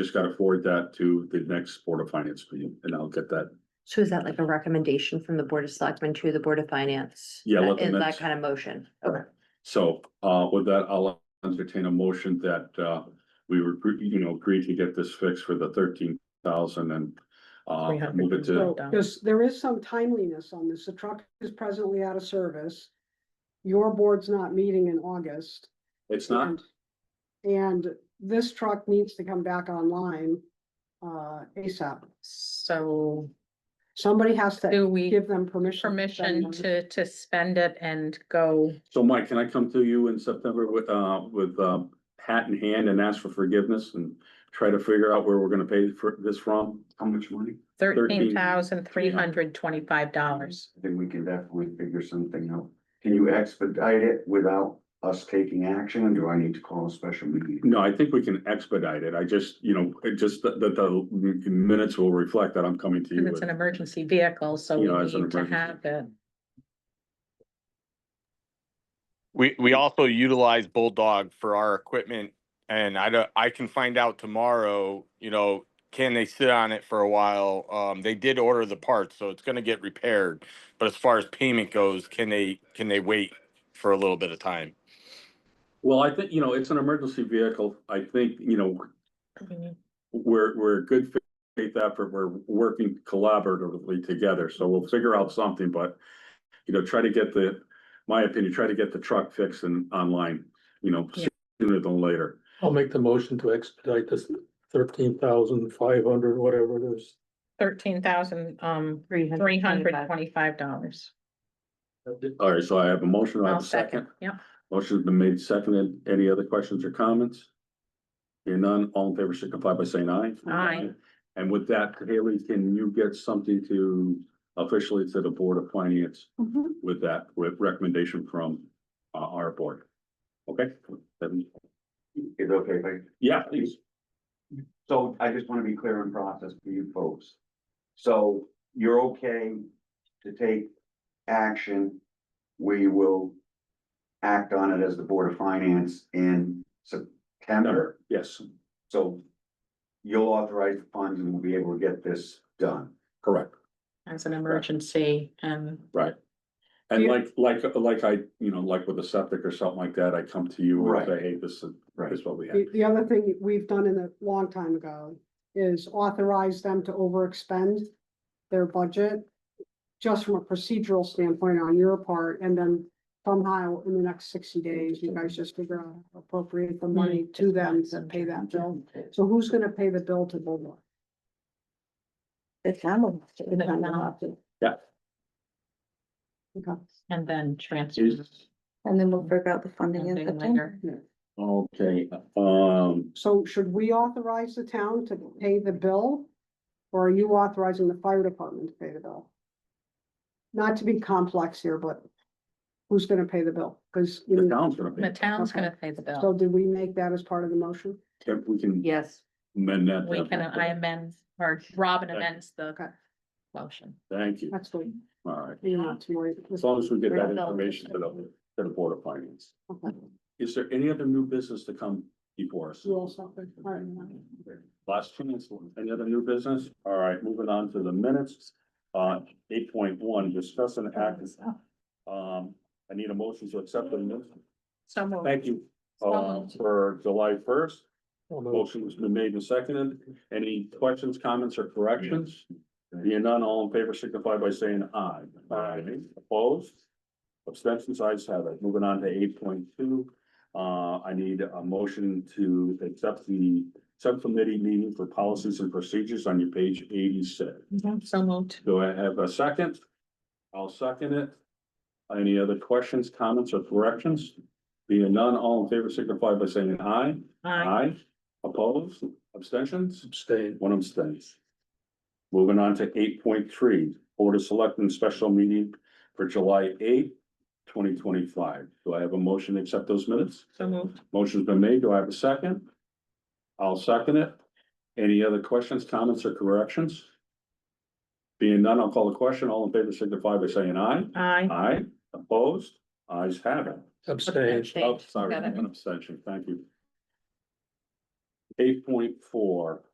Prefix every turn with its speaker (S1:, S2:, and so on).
S1: Just gotta forward that to the next Board of Finance meeting and I'll get that.
S2: So is that like a recommendation from the Board of Selectmen to the Board of Finance?
S1: Yeah, let
S2: That-
S1: them
S2: Is
S1: minutes-
S2: that kind of motion? Okay,
S1: So, uh, with that, I'll entertain a motion that, uh, we were, you know, agree to get this fixed for the thirteen thousand and. Uh, move it to,
S3: So,
S4: down.
S3: there's, there is some timeliness on this. The truck is presently out of service. Your board's not meeting in August.
S1: it's not,
S3: and- And this truck needs to come back online, uh, ASAP.
S4: So
S3: Somebody has to
S4: do we
S3: give them permission. spend
S4: permission
S3: money.
S4: to, to spend it and go?
S1: so Mike, can I come to you in September with, uh, with, uh, hat in hand and ask for forgiveness and. Try to figure out where we're gonna pay for this from? How much money?
S4: Thirteen thousand three hundred twenty-five dollars.
S5: Then we can definitely figure something out. Can you expedite it without us taking action, or do I need to call a special meeting?
S1: No, I think we can expedite it. I just, you know, it just, that, that the minutes will reflect that I'm coming to you
S4: And it's
S1: with.
S4: an emergency vehicle, so
S1: You know,
S4: we
S1: it's an
S4: need to
S1: emergency.
S4: have it.
S6: We, we also utilize Bulldog for our equipment and I don't, I can find out tomorrow, you know, can they sit on it for a while? Um, they did order the parts, so it's gonna get repaired. But as far as payment goes, can they, can they wait for a little bit of time?
S1: Well, I think, you know, it's an emergency vehicle. I think, you know, we're, we're a good faith effort. We're working collaboratively together, so we'll figure out something, but you know, try to get the, my opinion, try to get the truck fixed and online, you know,
S4: Yeah.
S1: sooner than later.
S7: I'll make the motion to expedite this thirteen thousand five hundred, whatever it is.
S4: Thirteen thousand, um, three hundred twenty-five dollars.
S1: All right, so I have a motion, I
S4: I'll
S1: have a second.
S4: second, yep.
S1: Motion's been made seconded. Any other questions or comments? Hearing none, all in favor signify by saying aye.
S4: Aye.
S1: And with that, Haley, can you get something to officially to the Board of Finance
S4: Mm-hmm.
S3: Mhm.
S1: with that, with recommendation from uh, our board? Okay? Then-
S5: Is it okay, if I
S1: Yeah, please.
S5: So I just wanna be clear in process for you folks. So you're okay to take action. We will act on it as the Board of Finance in September.
S1: Yes,
S5: So you'll authorize the funds and we'll be able to get this done.
S1: correct.
S4: As an emergency and
S1: And
S3: Yeah.
S1: like, like, like I, you know, like with a septic or something like that, I come to you and
S5: Right.
S1: say, hey, this is, this is what we have.
S3: The, the other thing we've done in a long time ago is authorize them to overexpend their budget. Just from a procedural standpoint on your part, and then somehow in the next sixty days, you guys just figure out how to appropriate the money to Mm, them to pay that bill. So who's gonna pay the bill to Bulldog?
S8: The town will. have to-
S4: The town will have
S1: Yeah.
S3: Okay.
S4: and then transfer.
S1: Jesus.
S8: And then we'll figure out the funding in
S4: Funding
S8: September.
S4: later.
S1: Okay, um,
S3: So should we authorize the town to pay the bill? Or are you authorizing the fire department to pay the bill? Not to be complex here, but who's gonna pay the bill? Cause, you
S1: the
S3: know,
S1: town's gonna
S4: The
S1: pay,
S4: town's
S3: Okay.
S4: gonna pay the bill.
S3: so did we make that as part of the motion?
S1: If we can
S2: yes,
S1: amend that.
S4: We can, I amend, or Robin amends the
S3: Okay.
S4: motion.
S1: Thank you,
S3: That's what
S1: all right,
S3: you're not too worried.
S1: as long as we get that
S2: Resolve.
S1: information to the, to the Board of Finance.
S3: Okay.
S1: Is there any other new business to come before us?
S3: You all stop it. All right.
S1: Last chance, any other new business? All right, moving on to the minutes. Uh, eight point one, discuss an act, um, I need a motion to accept the minutes.
S4: So moved.
S1: Thank you, uh, for July first.
S7: I'll move.
S1: Motion has been made and seconded. Any questions, comments, or corrections? Being none, all in favor signify by saying aye. Aye. Opposed? Abstentions, ayes have it. Moving on to eight point two. Uh, I need a motion to accept the subcommittee meeting for policies and procedures on your page eighty-six.
S4: Mhm, So moved.
S1: Do I have a second? I'll second it. Any other questions, comments, or corrections? Being none, all in favor signify by saying aye.
S4: Aye.
S1: Aye, opposed, abstentions,
S7: Abstain.
S1: one abstains. Moving on to eight point three, Board of Selectmen special meeting for July eighth, twenty twenty-five. Do I have a motion to accept those minutes?
S4: So moved.
S1: Motion's been made, do I have a second? I'll second it. Any other questions, comments, or corrections? Being none, I'll call the question, all in favor signify by saying aye.
S4: Aye.
S1: Aye, opposed, ayes have it.
S7: Abstain.
S4: Abstain.
S1: Oh, sorry,
S4: Got it.
S1: an abstention, thank you. Eight point four,